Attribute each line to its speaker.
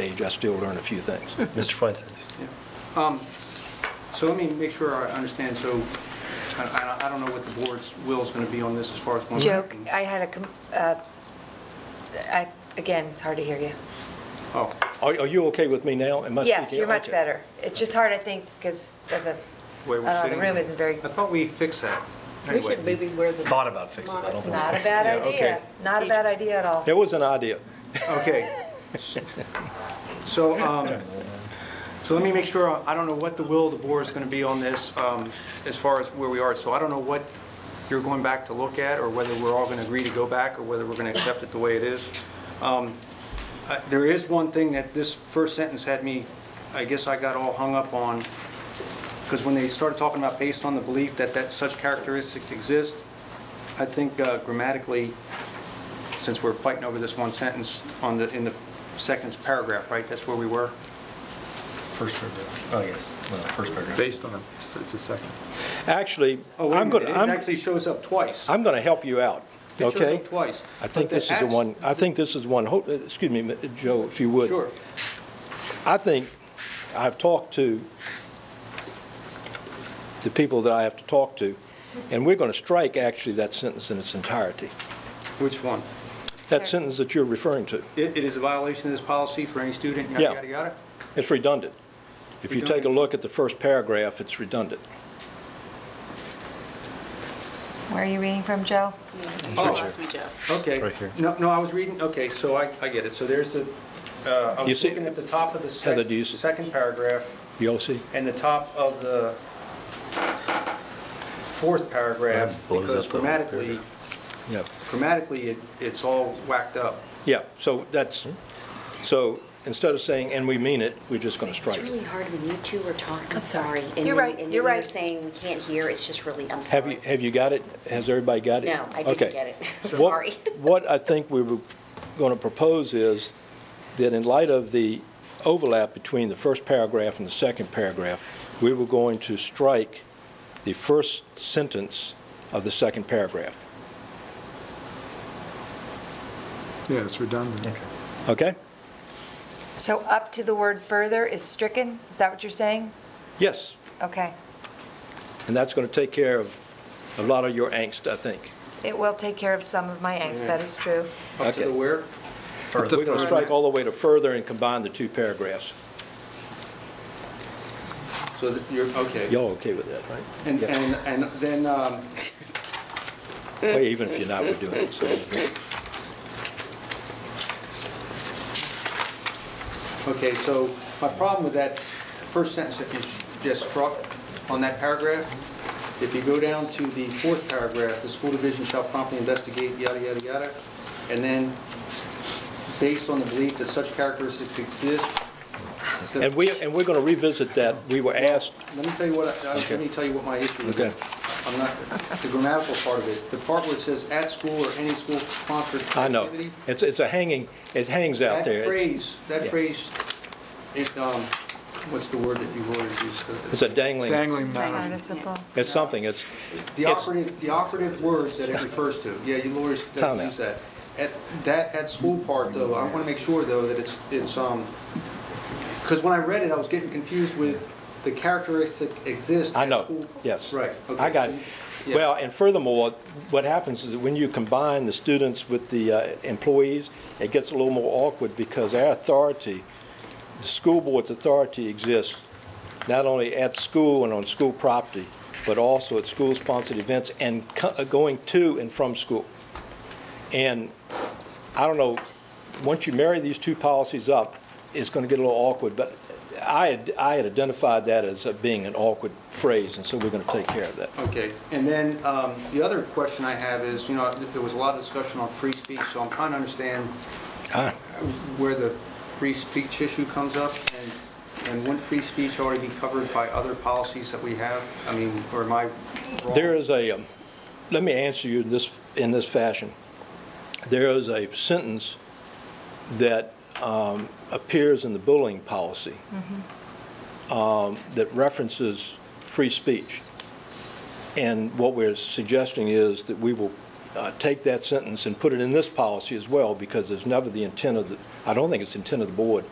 Speaker 1: stage, I still learn a few things.
Speaker 2: Mr. Fuentes?
Speaker 3: So let me make sure I understand, so I- I I don't know what the board's will is going to be on this as far as going
Speaker 4: Joe,
Speaker 3: back.
Speaker 4: I had a, com- uh, I, again, it's hard to hear you.
Speaker 3: Oh,
Speaker 1: Are, are you okay with me now? Am I
Speaker 4: Yes,
Speaker 1: speaking?
Speaker 4: you're much
Speaker 1: Okay.
Speaker 4: better. It's just hard, I think, because of the,
Speaker 3: where
Speaker 4: I
Speaker 3: we're
Speaker 4: don't know,
Speaker 3: sitting?
Speaker 4: Uh, the room isn't very,
Speaker 3: I thought we fixed that.
Speaker 5: We
Speaker 3: Anyway.
Speaker 5: should maybe wear the.
Speaker 2: Thought about fixing it, I don't think-
Speaker 4: not a bad
Speaker 3: Yeah,
Speaker 4: idea.
Speaker 3: okay.
Speaker 4: Not a bad idea at all.
Speaker 1: It was an idea.
Speaker 3: Okay. So, um, so let me make sure, I don't know what the will of the board is going to be on this um, as far as where we are. So I don't know what you're going back to look at, or whether we're all going to agree to go back, or whether we're going to accept it the way it is. Um, uh, There is one thing that this first sentence had me, I guess I got all hung up on, because when they started talking about based on the belief that that such characteristics exist, I think uh, grammatically, since we're fighting over this one sentence on the, in the second paragraph, right? That's where we were?
Speaker 2: First paragraph. Oh, yes, well, first paragraph.
Speaker 6: Based on, the- it's the second.
Speaker 1: Actually,
Speaker 3: Oh, wait a
Speaker 1: I'm going
Speaker 3: minute,
Speaker 1: to,
Speaker 3: it
Speaker 1: I'm,
Speaker 3: actually shows up twice.
Speaker 1: I'm going to help you out,
Speaker 3: It shows
Speaker 1: okay?
Speaker 3: up twice.
Speaker 1: I think
Speaker 3: But
Speaker 1: this is the
Speaker 3: ax-
Speaker 1: one, I think this is one, ho- uh, excuse me, Mi- Joe, if you would.
Speaker 3: Sure.
Speaker 1: I think I've talked to the people that I have to talk to, and we're going to strike actually that sentence in its entirety,
Speaker 3: Which one?
Speaker 1: that sentence that you're referring to.
Speaker 3: It, it is a violation of this policy for any student, yada,
Speaker 1: Yeah.
Speaker 3: yada, yada?
Speaker 1: It's redundant. If you take a
Speaker 3: Redundant.
Speaker 1: look at the first paragraph, it's redundant.
Speaker 4: Where are you reading from, Joe?
Speaker 3: Oh.
Speaker 5: Lost me, Joe.
Speaker 3: Okay.
Speaker 2: Right here.
Speaker 3: No, no, I was reading, okay, so I, I get it. So there's the, uh, I
Speaker 1: You
Speaker 3: was
Speaker 1: see-
Speaker 3: looking at the top of the sec-
Speaker 1: Heather, do you see-
Speaker 3: second paragraph
Speaker 1: You all see?
Speaker 3: and the top of the fourth paragraph,
Speaker 2: That blows
Speaker 3: because
Speaker 2: up the whole
Speaker 3: grammatically,
Speaker 1: Yeah.
Speaker 3: grammatically, it's, it's all whacked up.
Speaker 1: Yeah, so that's, so instead of saying, "and we mean it," we're just going to strike
Speaker 7: It's
Speaker 1: it.
Speaker 7: really hard when you two are talking, I'm sorry. and
Speaker 4: You're
Speaker 7: then-
Speaker 4: right,
Speaker 7: And
Speaker 4: you're
Speaker 7: then you're
Speaker 4: right.
Speaker 7: saying we can't hear, it's just really, I'm
Speaker 1: Have you,
Speaker 7: sorry.
Speaker 1: have you got it? Has everybody got it?
Speaker 7: No, I didn't
Speaker 1: Okay.
Speaker 7: get it.
Speaker 1: What-
Speaker 7: Sorry.
Speaker 1: What I think we were going to propose is that in light of the overlap between the first paragraph and the second paragraph, we were going to strike the first sentence of the second paragraph.
Speaker 6: Yeah, it's redundant.
Speaker 2: Okay.
Speaker 1: Okay?
Speaker 4: So up to the word further is stricken? Is that what you're saying?
Speaker 1: Yes.
Speaker 4: Okay.
Speaker 1: And that's going to take care of a lot of your angst, I think.
Speaker 4: It will take care of some of my angst, that is true.
Speaker 3: Up to
Speaker 1: Okay.
Speaker 3: the where?
Speaker 1: We're
Speaker 6: to
Speaker 1: going to
Speaker 6: further.
Speaker 1: strike all the way to further and combine the two paragraphs.
Speaker 3: So that you're, okay.
Speaker 1: Y'all okay with that, right?
Speaker 3: And,
Speaker 1: Yeah.
Speaker 3: and, and then, um,
Speaker 1: Well, Even if you're not, we're doing it, so.
Speaker 3: okay, so my problem with that first sentence, if you just struck on that paragraph, if you go down to the fourth paragraph, the school division shall promptly investigate, yada, yada, yada, and then based on the belief that such characteristics exist. the-
Speaker 1: And we, and we're going to revisit that. We were asked,
Speaker 3: Let me tell you what, I- I- let me tell you what my issue is.
Speaker 1: Okay.
Speaker 3: I'm not, the grammatical part of it, the part where it says at school or any school-sponsored activity.
Speaker 1: I know, it's, it's a hanging, it hangs out there.
Speaker 3: That
Speaker 1: It's-
Speaker 3: phrase, that
Speaker 1: yeah.
Speaker 3: phrase, it, um, what's the word that you always use?
Speaker 1: It's a dangling,
Speaker 6: Dangling mountain.
Speaker 4: Noticeable.
Speaker 1: it's something, it's,
Speaker 3: The
Speaker 1: it's-
Speaker 3: operative, the operative words that it refers to, yeah, you lawyers
Speaker 1: Time
Speaker 3: don't
Speaker 1: out.
Speaker 3: use that. At, that, at school part though, I wanna make sure though that it's, it's, um, cause when I read it, I was getting confused with the characteristic exist.
Speaker 1: I
Speaker 3: at
Speaker 1: know,
Speaker 3: school-
Speaker 1: yes.
Speaker 3: Right. okay.
Speaker 1: I got it.
Speaker 3: Yeah.
Speaker 1: Well, and furthermore, what happens is that when you combine the students with the uh, employees, it gets a little more awkward because our authority, the school board's authority exists not only at school and on school property, but also at school-sponsored events and co- uh, going to and from school. And I don't know, once you marry these two policies up, it's going to get a little awkward, but I had, I had identified that as uh, being an awkward phrase, and so we're going to take care of that.
Speaker 3: Okay, and then um, the other question I have is, you know, there was a lot of discussion on free speech, so I'm trying to understand where the free speech issue comes up, and and wouldn't free speech already be covered by other policies that we have? I mean, or am I wrong?
Speaker 1: There is a, um, let me answer you in this, in this fashion. There is a sentence that um, appears in the bullying policy um, that references free speech. And what we're suggesting is that we will uh, take that sentence and put it in this policy as well, because there's never the intent of the, I don't think it's the intent of the board